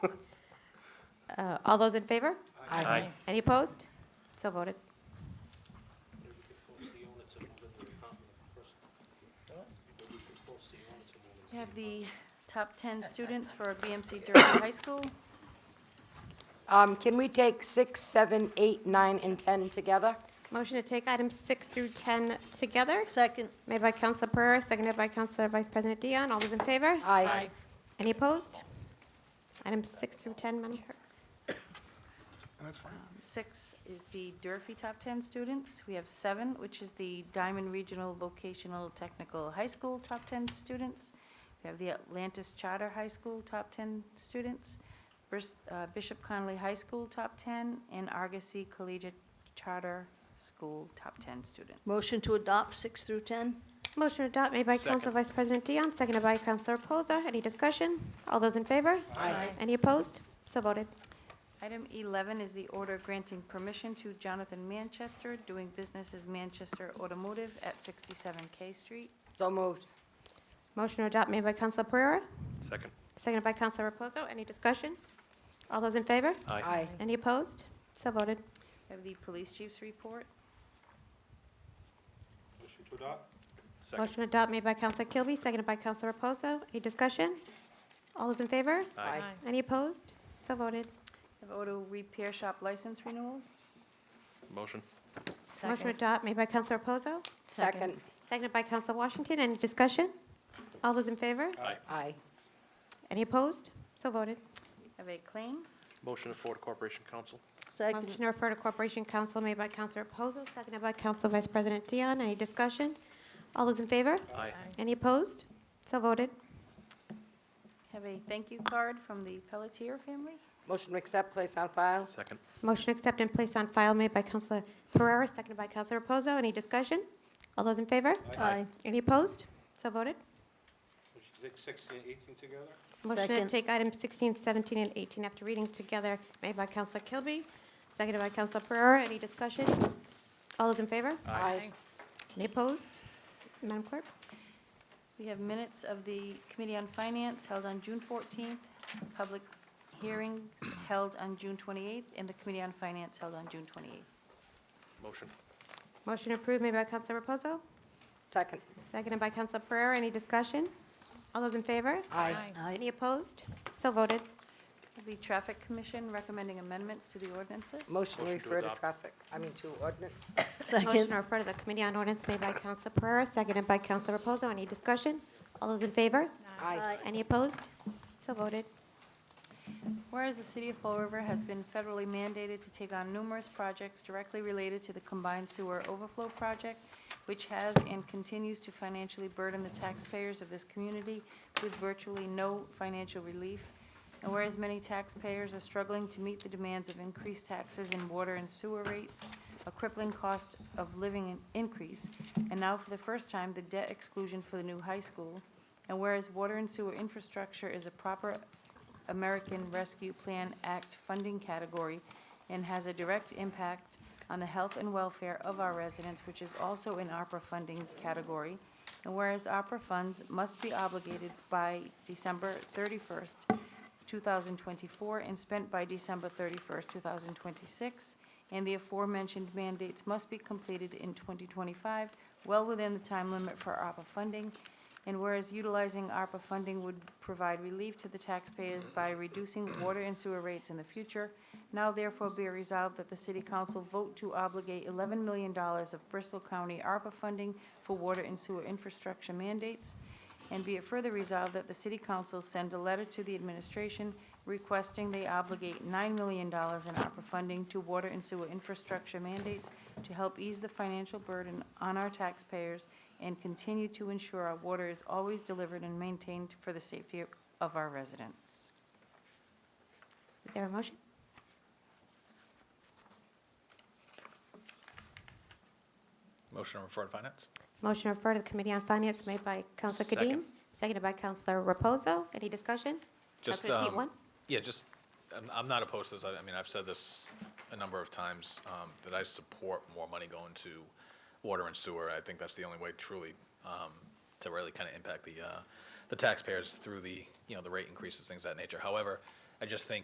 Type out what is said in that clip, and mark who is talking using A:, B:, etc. A: Uh, All those in favor?
B: Aye.
A: Any opposed? So voted.
C: We have the top 10 students for BMC Durfee High School.
B: Um, Can we take six, seven, eight, nine, and 10 together?
A: Motion to take items six through 10 together,
D: Second.
A: made by Counselor Pereira, seconded by Counselor Vice President Dion. All those in favor?
B: Aye.
A: Any opposed? Items six through 10, Madam Clerk.
E: That's fine.
C: Six is the Durfee top 10 students. We have seven, which is the Diamond Regional Vocational Technical High School top 10 students. We have the Atlantis Charter High School top 10 students, Bris- uh, Bishop Connolly High School top 10, and Argosy Collegiate Charter School top 10 students.
D: Motion to adopt six through 10?
A: Motion to adopt made by Counsel Vice President Dion, seconded by Counselor Reposa. Any discussion? All those in favor?
D: Aye.
A: Any opposed? So voted.
C: Item 11 is the order granting permission to Jonathan Manchester, doing business as Manchester Automotive at 67 K Street.
B: So moved.
A: Motion to adopt made by Counselor Pereira,
F: Second.
A: seconded by Counselor Reposo. Any discussion? All those in favor?
B: Aye.
A: Any opposed? So voted.
C: We Have the police chief's report.
E: Motion to adopt?
A: Motion to adopt made by Counselor Kilby, seconded by Counselor Reposo. Any discussion? All those in favor?
B: Aye.
A: Any opposed? So voted.
C: We Have auto repair shop license renewals.
F: Motion.
A: Motion to adopt made by Counselor Reposo,
B: Second.
A: seconded by Counselor Washington. Any discussion? All those in favor?
B: Aye.
A: Any opposed? So voted.
C: We Have a claim.
F: Motion to forward Corporation Council.
D: Second.
A: Motion to refer to Corporation Council made by Counselor Reposo, seconded by Counsel Vice President Dion. Any discussion? All those in favor?
F: Aye.
A: Any opposed? So voted.
C: We Have a thank you card from the Pelletier family.
B: Motion to accept, place on file?
F: Second.
A: Motion to accept and place on file made by Counselor Pereira, seconded by Counselor Reposo. Any discussion? All those in favor?
D: Aye.
A: Any opposed? So voted.
E: Motion to take sixteen and eighteen together?
A: Motion to
D: Second.
A: take items 16, 17, and 18 after reading together made by Counselor Kilby, seconded by Counselor Pereira. Any discussion? All those in favor?
B: Aye.
A: Any opposed? Madam Clerk?
C: We have minutes of the Committee on Finance held on June 14th, public hearings held on June 28th, and the Committee on Finance held on June 28th.
F: Motion.
A: Motion approved made by Counselor Reposo,
B: Second.
A: Seconded by Counselor Pereira. Any discussion? All those in favor?
B: Aye.
A: Any opposed? So voted.
C: The Traffic Commission recommending amendments to the ordinances.
B: Motion to
F: Motion to
B: refer to
F: adopt.
B: traffic, I mean to ordinance?
A: Motion
D: Second.
A: to refer to the Committee on Ordinance made by Counselor Pereira, seconded by Counselor Reposo. Any discussion? All those in favor?
B: Aye.
A: Any opposed? So voted.
C: Whereas the city of Fall River has been federally mandated to take on numerous projects directly related to the combined sewer overflow project, which has and continues to financially burden the taxpayers of this community with virtually no financial relief. And whereas many taxpayers are struggling to meet the demands of increased taxes in water and sewer rates, a crippling cost of living increase, and now for the first time, the debt exclusion for the new high school. And whereas water and sewer infrastructure is a proper American Rescue Plan Act funding category and has a direct impact on the health and welfare of our residents, which is also in ARPA funding category. And whereas ARPA funds must be obligated by December 31st, 2024, and spent by December 31st, 2026, and the aforementioned mandates must be completed in 2025, well within the time limit for ARPA funding, and whereas utilizing ARPA funding would provide relief to the taxpayers by reducing water and sewer rates in the future, now therefore be resolved that the City Council vote to obligate $11 million of Bristol County ARPA funding for water and sewer infrastructure mandates, and be it further resolved that the City Council send a letter to the administration requesting they obligate $9 million in ARPA funding to water and sewer infrastructure mandates to help ease the financial burden on our taxpayers and continue to ensure our water is always delivered and maintained for the safety of our residents.
A: Is there a motion?
G: Motion to refer to finance?
A: Motion to refer to the Committee on Finance made by Counselor Kadim,
G: Second.
A: seconded by Counselor Reposo. Any discussion?
G: Just,
A: Counselor Seat
G: um,
A: one?
G: Yeah, just, I'm, I'm not opposed to this, I, I mean, I've said this a number of times, um, that I support more money going to water and sewer. I think that's the only way truly, um, to really kind of impact the, uh, the taxpayers through the, you know, the rate increases, things of that nature. However, I just think